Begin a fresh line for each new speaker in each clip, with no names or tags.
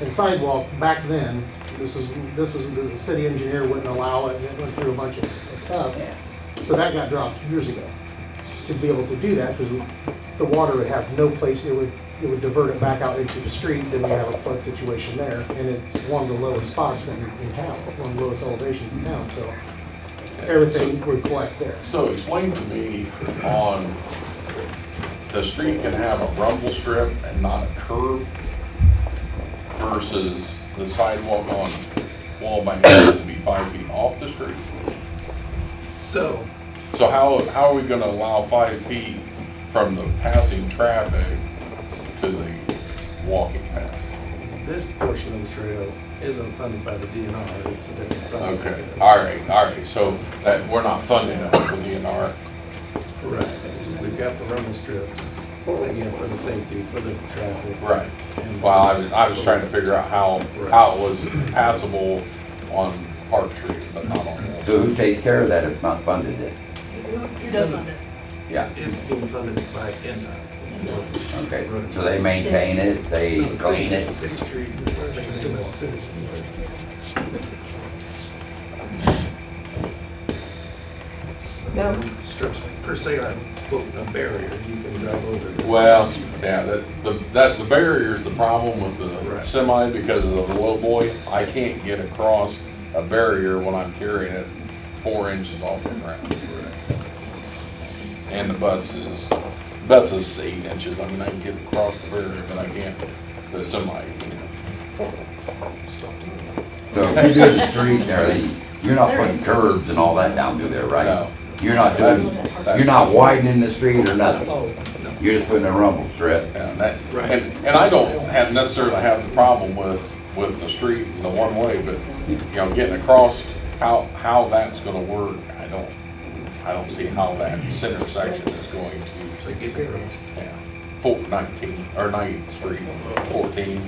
and sidewalk back then, this is, this is, the city engineer wouldn't allow it, and it went through a bunch of s- stuff. So that got dropped years ago, to be able to do that, because the water would have no place, it would, it would divert it back out into the street, then we have a flood situation there, and it's one of the lowest spots in, in town, one of the lowest elevations in town, so everything would collect there.
So explain to me on, the street can have a rumble strip and not a curb versus the sidewalk on Wall Bank has to be five feet off the street.
So,
So how, how are we gonna allow five feet from the passing traffic to the walking path?
this portion of the trail isn't funded by the DNR, it's a different fund.
Okay, all right, all right, so that, we're not funding it with the DNR.
Correct. We've got the rumble strips, again, for the safety, for the traffic.
Right. Well, I was, I was trying to figure out how, how it was passable on Park Street, but not on Wall.
So who takes care of that if not funded then?
Who does fund it?
Yeah,
It's being funded by NDOT.
okay. So they maintain it, they clean
It's a
it.
Sixth Street. it's about Sixth.
No.
Strips per se are a barrier, you can drive over. the-
Well, yeah, that, the, that, the barrier is the problem with the
Right.
semi because of the low boy. I can't get across a barrier when I'm carrying it four inches off the ground. And the bus is, bus is eight inches. I mean, I can get across the barrier, but I can't, the semi, you know.
So if you do the street there, they- you're not putting curbs and all that down through there,
No.
right? You're not doing,
That's-
you're not widening the street or nothing.
Oh, no.
You're just putting a rumble strip.
Yeah, and that's,
Right.
and, and I don't have necessarily have the problem with, with the street and the one way, but, you know, getting across, how, how that's gonna work, I don't, I don't see how that center section is going
They
to,
get the roads.
yeah, four nineteen, or ninth street, fourteen,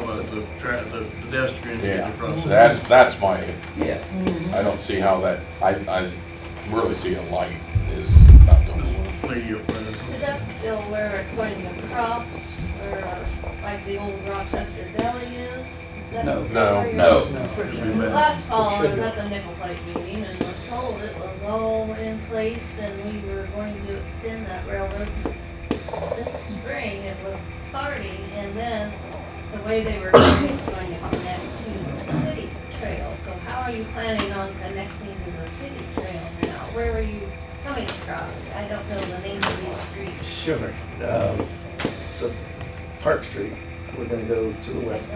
Oh, uh, the tra, the pedestrian.
yeah.
crossing.
That, that's my,
Yeah.
I don't see how that, I, I really see a light is not gonna work.
Lady up there.
Is that still where it's putting the crops, where like the old Rochester Deli is? Is that
No,
still
no,
where you're-
No,
Last fall, I was at the nickel plate meeting and was told it was all in place and we were going to extend that railroad. This spring, it was starting and then the way they were doing it was going to connect to the city trail. So how are you planning on connecting to the city trail now? Where were you coming from? I don't know the names of these streets.
Sure. Um, So Park Street, we're gonna go to the west.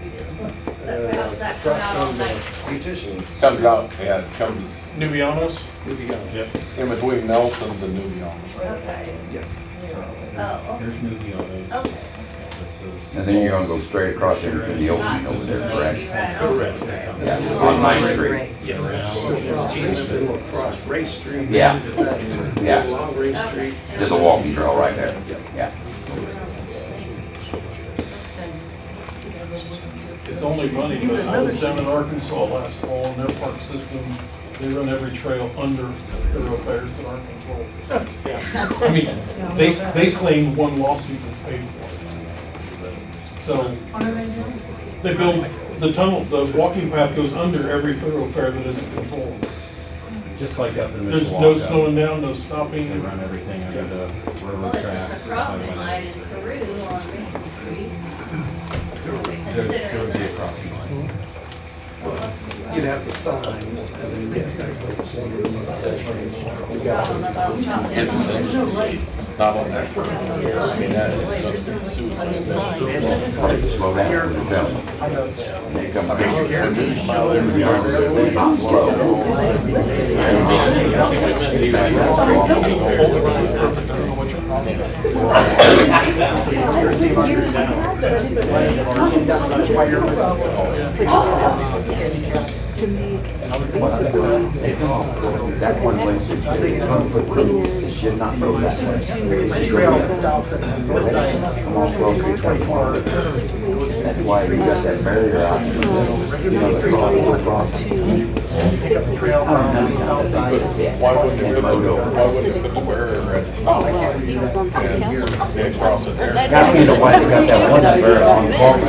Uh,
That's
truck
out all
from the
night.
Beautician,
Comes out, yeah, it comes. Nubianos?
maybe, uh,
In between Nelson's and Nubianos.
Okay,
yes.
oh,
There's Nubiana.
okay.
This is-
and then you're gonna go straight across there to the ocean over there, correct?
Correct.
Yeah, on Main Street.
Yes. Easement, then we'll cross Race Street.
Yeah. Yeah.
Along Race Street.
There's a walking trail right there. Yeah.
It's only money, but I was down in Arkansas last fall, and their park system, they run every trail under thoroughfares that aren't controlled. I mean, they, they claim one lawsuit was paid for. it. So, they build, the tunnel, the walking path goes under every thoroughfare that isn't controlled.
Just like up in Mishawaka.
There's no slowing down, no stopping.
They run everything under the
Well,
railroad
it's
tracks.
the crossing line in Peru on Main Street. We
There, there
consider
would be a
that.
crossing line.
You'd have the signs, and then, yes, I was wondering about that. We've got
Problem about
It's
shopping.
essential to see, not on that curve. I mean, that is substance suicide.
Slow down for the film. They come
I bet you
around.
Karen didn't show them.
They're not slow. That one place, that you take a front foot road, it should not go that way. It's straight. Come on, close to 24. That's why we got that barrier out. You know, the crosswalk across.
Why wouldn't you put, why wouldn't you put the barrier at the stop sign?
He was Oh, on city council.
They cross it there.
Gotta be the one that got that one barrier on the corner.